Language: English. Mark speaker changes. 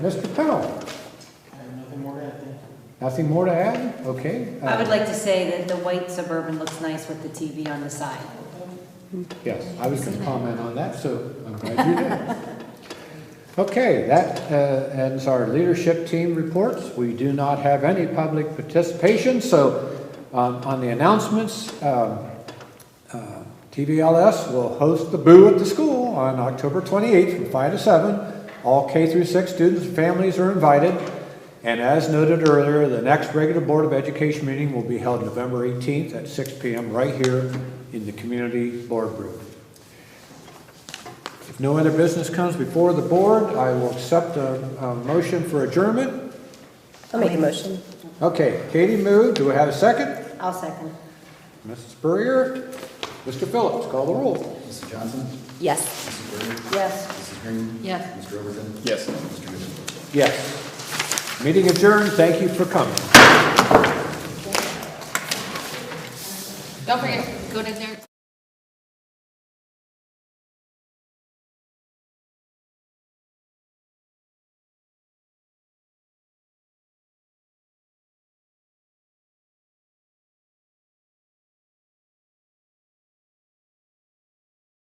Speaker 1: Mr. Pennell,
Speaker 2: Nothing more to add, thank you.
Speaker 1: nothing more to add? Okay. uh,
Speaker 3: I
Speaker 4: Um,
Speaker 3: would like to say that the white Suburban looks nice with the TV on the side.
Speaker 1: Yes, I was going to comment on that, so I'm glad you did. Okay, that uh, ends our leadership team reports. We do not have any public participation, so um, on the announcements, um, uh, TVLS will host the Boo at the School on October 28th from 5 to 7. All K through 6 students and families are invited. And as noted earlier, the next regular Board of Education meeting will be held November 18th at 6 PM right here in the community boardroom. If no other business comes before the board, I will accept a, a motion for adjournment.
Speaker 4: I'll make a motion.
Speaker 1: Okay, Katie moved. Do we have a second?
Speaker 3: I'll second.
Speaker 1: Mrs. Spurrier? Mr. Phillips, call the roll.
Speaker 5: Mrs. Johnson?
Speaker 4: Yes.
Speaker 5: Mrs. Berry?
Speaker 3: Yes.
Speaker 5: Mrs. Green?
Speaker 3: Yes.
Speaker 5: Mr. Overton?
Speaker 2: Yes.
Speaker 5: Mr. Newsom?
Speaker 1: Yes. Meeting adjourned. Thank you for coming.
Speaker 6: Don't forget, go to their.